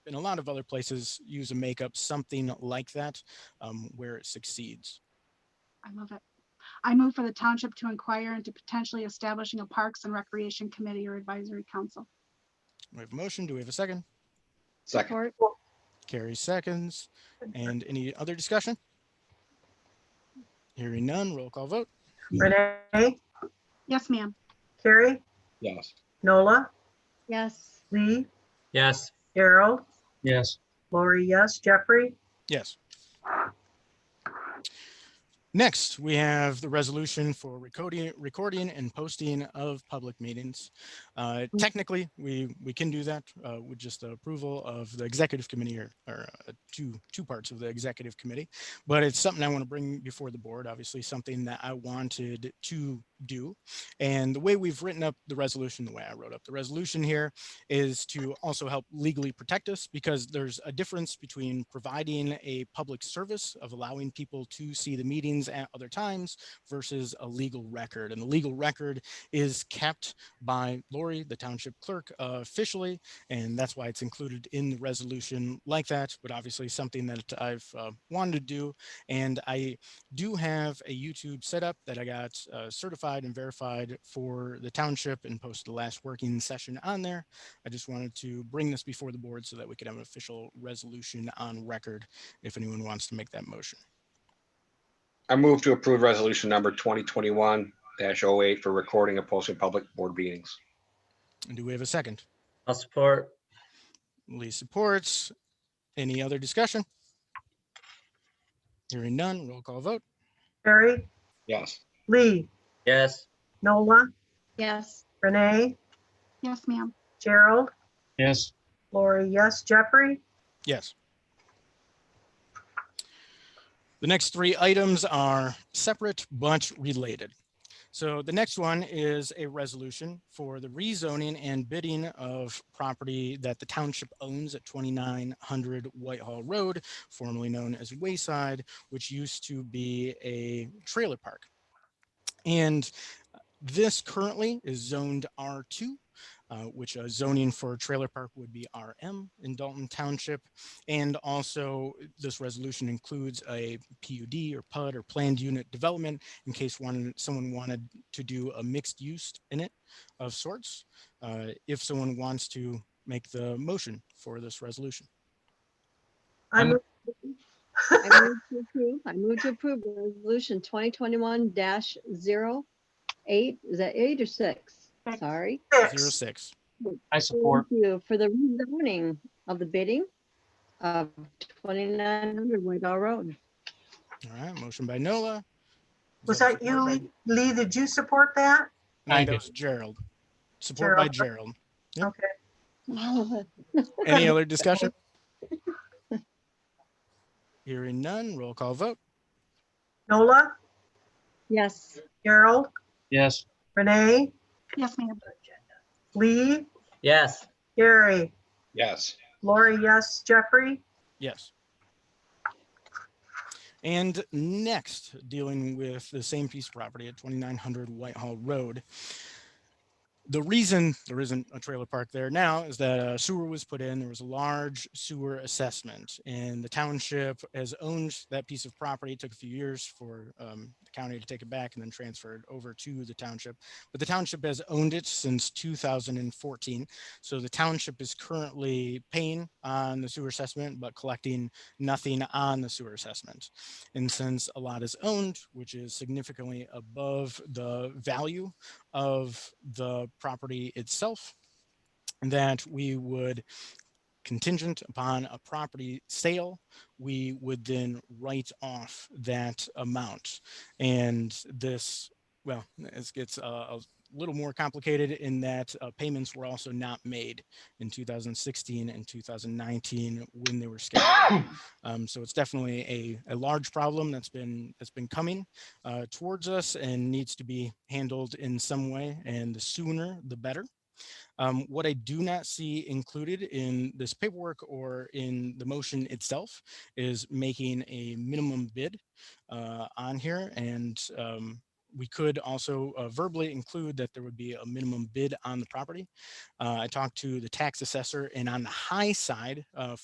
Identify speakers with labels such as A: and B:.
A: and a lot of other places use a makeup something like that um, where it succeeds.
B: I love it. I move for the township to inquire into potentially establishing a Parks and Recreation Committee or Advisory Council.
A: We have a motion. Do we have a second?
C: Second,
A: Carrie seconds. And any other discussion? Hearing none, roll call vote.
D: Renee,
B: Yes, ma'am.
D: Carrie,
C: yes.
D: Nola,
E: yes,
D: Lee,
F: yes,
D: Harold,
C: Yes.
D: Lori, yes, Jeffrey,
A: Yes. Next, we have the resolution for recording, recording and posting of public meetings. Uh, Technically, we, we can do that uh, with just the approval of the executive committee or, or uh, two, two parts of the executive committee. But it's something I want to bring before the board, obviously something that I wanted to do. And the way we've written up the resolution, the way I wrote up the resolution here is to also help legally protect us because there's a difference between providing a public service of allowing people to see the meetings at other times versus a legal record. And the legal record is kept by Lori, the township clerk, uh, officially. And that's why it's included in the resolution like that, but obviously something that I've uh, wanted to do. And I do have a YouTube setup that I got uh, certified and verified for the township and posted the last working session on there. I just wanted to bring this before the board so that we could have an official resolution on record if anyone wants to make that motion.
C: I move to approve resolution number twenty twenty-one 8 for recording and posting public board meetings.
A: And do we have a second?
F: I'll support,
A: Lee supports. Any other discussion? Hearing none, roll call vote.
D: Carrie,
C: Yes.
D: Lee,
F: yes,
D: Nola,
E: yes,
D: Renee,
B: Yes, ma'am.
D: Gerald,
C: Yes.
D: Lori, yes, Jeffrey,
A: Yes. The next three items are separate but related. So the next one is a resolution for the rezoning and bidding of property that the township owns at 2900 Whitehall Road, formerly known as Wayside, which used to be a trailer park. And this currently is zoned R2, uh, which uh, zoning for a trailer park would be RM in Dalton Township. And also, this resolution includes a PUD or PUD or planned unit development in case one, someone wanted to do a mixed use in it of sorts. Uh, If someone wants to make the motion for this resolution.
D: I
F: I'm-
D: move,
E: I move to approve, I move to approve resolution twenty twenty-one dash zero eight, is that eight or six?
B: Six.
E: Sorry.
A: Zero
D: six.
A: six.
G: I support,
E: Thank you for the rezoning of the bidding of twenty-nine hundred Whitehall Road.
A: All right, motion by Nola. Is
D: was that you,
A: supported by-
D: Lee? Lee, did you support that?
A: I think
G: Thank
A: that
G: you.
A: was Gerald. Support by Gerald. Yep.
D: Okay,
A: Any other discussion? Hearing none, roll call vote.
D: Nola,
E: Yes,
D: Gerald,
G: yes,
D: Renee,
B: Yes, ma'am.
D: Lee,
F: yes,
D: Carrie,
C: Yes.
D: Lori, yes, Jeffrey,
A: Yes. And next, dealing with the same piece of property at 2900 Whitehall Road. The reason there isn't a trailer park there now is that a sewer was put in. There was a large sewer assessment, and the township has owned that piece of property. It took a few years for um, the county to take it back and then transfer it over to the township. But the township has owned it since 2014. So the township is currently paying on the sewer assessment, but collecting nothing on the sewer assessment. And since a lot is owned, which is significantly above the value of the property itself, that we would contingent upon a property sale, we would then write off that amount. And this, well, this gets uh, a little more complicated in that uh, payments were also not made in 2016 and 2019 when they were scheduled. um, so it's definitely a, a large problem that's been that's been coming uh, towards us and needs to be handled in some way, and the sooner the better. Um, what I do not see included in this paperwork or in the motion itself is making a minimum bid uh, on here and um, we could also uh, verbally include that there would be a minimum bid on the property. Uh, I talked to the tax assessor and on the high side, uh,